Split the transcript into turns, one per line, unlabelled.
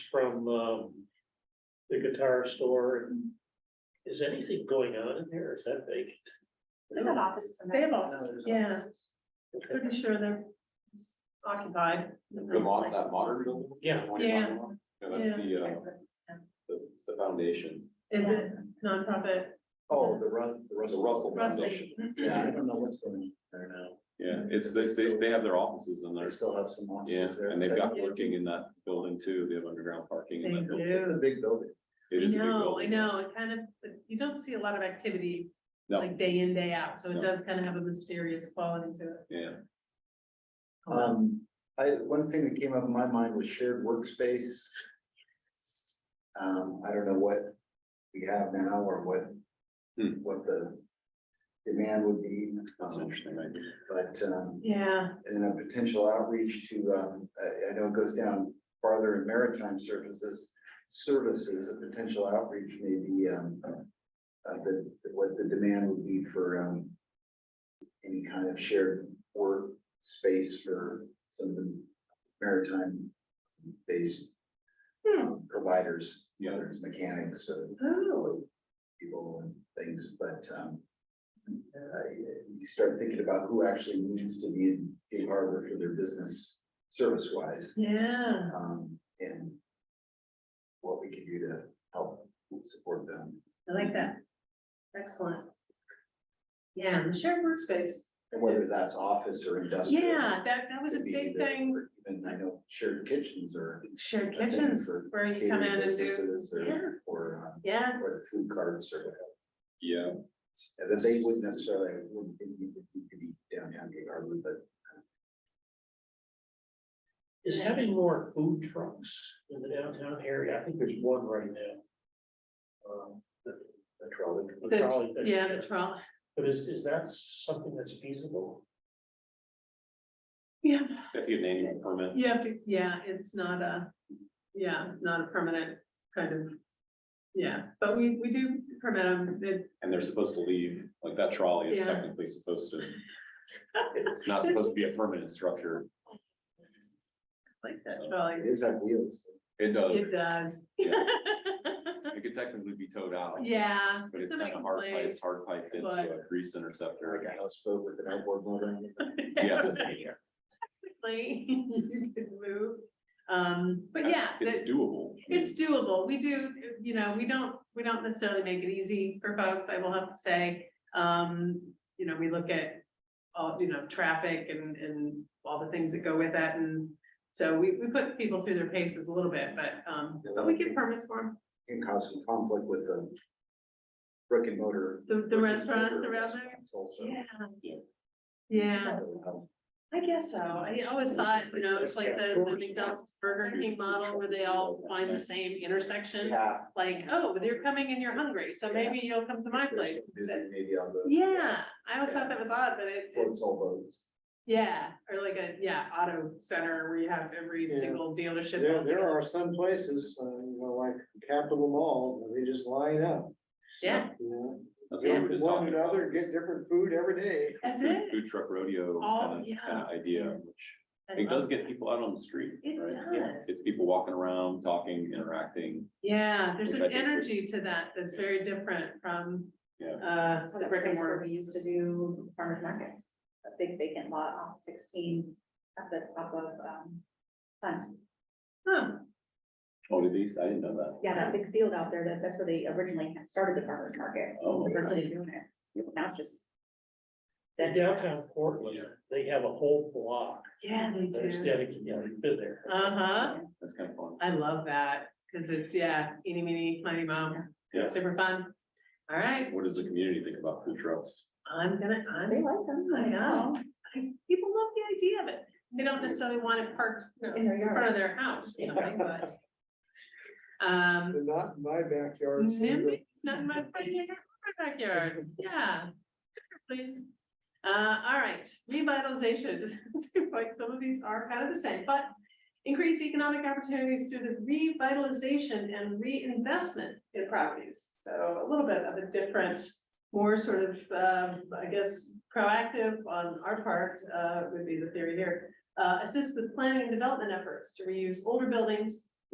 from, um, the guitar store and is anything going on in there? Is that big?
They have offices. in
They have
there.
offices, yeah, pretty sure they're it's occupied.
The mod, that modern building?
Yeah.
The one you're
Yeah.
talking about? Yeah, that's the, uh, the, it's the foundation,
Is it nonprofit?
Oh, the Rus- the
the
Russell. Mm-hmm.
Russell
Russell.
Foundation.
Yeah, I don't know what's going on there now.
Yeah, it's, they, they, they have their offices in
They
there,
still have some
yeah,
offices there.
and they've
It's like-
got working in that building too, they have underground parking in
They
that building.
do.
It's a big building.
It
I
is a big
know, I
building.
know, it kind of, but you don't see a lot of activity.
No.
Like day in, day out, so it
No.
does kind of have a mysterious quality to it.
Yeah,
Um, I, one thing that came up in my mind was shared workspace. Um, I don't know what we have now or what,
Hmm.
what the demand would be,
that's an interesting idea.
but, um,
Yeah,
and a potential outreach to, um, I, I know it goes down farther in maritime services, services, a potential outreach maybe, um, uh, the, what the demand would be for, um, any kind of shared work space for some of the maritime based um, providers,
Yeah.
whether it's mechanics, or
oh,
people and things, but, um. Uh, you start thinking about who actually needs to be in Gig Harbor for their business service wise,
yeah,
um, and. What we can do to help support them.
I like that. Excellent. Yeah, and the shared workspace,
And whether that's office or industrial.
yeah, that, that was a
could be
big
either,
thing,
or even I know shared kitchens or.
shared kitchens, where you come in and do, yeah.
Or, or, um,
yeah,
or the food carts or whatever,
Yeah,
and that they wouldn't necessarily, wouldn't need to be downtown Gig Harbor, but
Is having more food trucks in the downtown area? I think there's one right now. Um,
the, the trolley.
the
The-
trolley fish
yeah, the
truck.
trolley.
But is, is that something that's feasible?
Yeah,
if you have an annual permit,
you have to, yeah, it's not a, yeah, not a permanent kind of, yeah, but we, we do permit them, it,
and they're supposed to leave, like that trolley is
Yeah.
technically supposed to. It's not supposed to be a permanent structure,
like that trolley,
It is on wheels.
it does,
it does.
Yeah. it could technically be towed out.
Yeah.
But it's
somebody
kind of hard,
complained.
pipe- it's hard piped into
but-
a grease interceptor.
Like a houseboat with an outboard motor. on it.
Yeah.
Technically, you could move, um, but yeah, that,
It's doable.
it's doable, we do, you know, we don't, we don't necessarily make it easy for folks, I will have to say. Um, you know, we look at all, you know, traffic and, and all the things that go with that, and so we, we put people through their paces a little bit, but, um, but we get permits for 'em.
Can cause some conflict with the brick and mortar.
the, the restaurants around there.
restaurants Also.
Yeah. Yeah, I guess so, I always thought, you know, it's like the the McDonald's Burger King model where they all find the same intersection.
Yeah.
Like, oh, you're coming and you're hungry, so maybe you'll come to my place. instead.
Maybe on the.
Yeah, I always thought that was odd, but it,
Floats
it's,
all boats.
yeah, or like a, yeah, auto center where you have every
Yeah.
single dealership.
There, there are some places, uh, you know, like Capitol Mall, where they just line up,
Yeah,
you know.
That's what we were
Get
just
One
talking
another,
about.
get different food every day.
that's
Food-
it.
Food truck rodeo
Oh,
kind
yeah.
of, kind of idea, which
I
it does
love
get
that.
people out on the street,
It
right?
does.
It's people walking around, talking, interacting.
Yeah, there's
Which
an
I think we-
energy to that that's very different from,
Yeah.
uh,
Well, that
brick and
place where
mortar.
we used to do farmers markets, a big vacant lot off sixteen at the top of, um, Hunt.
Huh,
Oh, did these? I didn't know that.
Yeah, that big field out there, that, that's where they originally had started the farmers market.
Oh,
The first
okay.
day doing it, now it's just.
In downtown Portland, they have a whole block
yeah, they
that's
do.
dedicated, yeah, you've been there.
Uh-huh.
that's kind of fun.
I love that, because it's, yeah, eeny, meeny, miny, mo,
Yeah.
super fun. All right,
What does the community think about food trucks?
I'm gonna,
They
I'm,
like them.
I know. I- people love the idea of it. They don't necessarily want it parked you know,
In their
in front
yard.
of their house, you know, but. Um,
They're not in my backyard. so they're-
maybe not in my front yard, my backyard, yeah, please. Uh, all right, revitalization, it seems like some of these are kind of the same, but increase economic opportunities through the revitalization and reinvestment in properties. So a little bit of a different, more sort of, um, I guess, proactive on our part, uh, would be the theory here. Uh, assist with planning and development efforts to reuse older buildings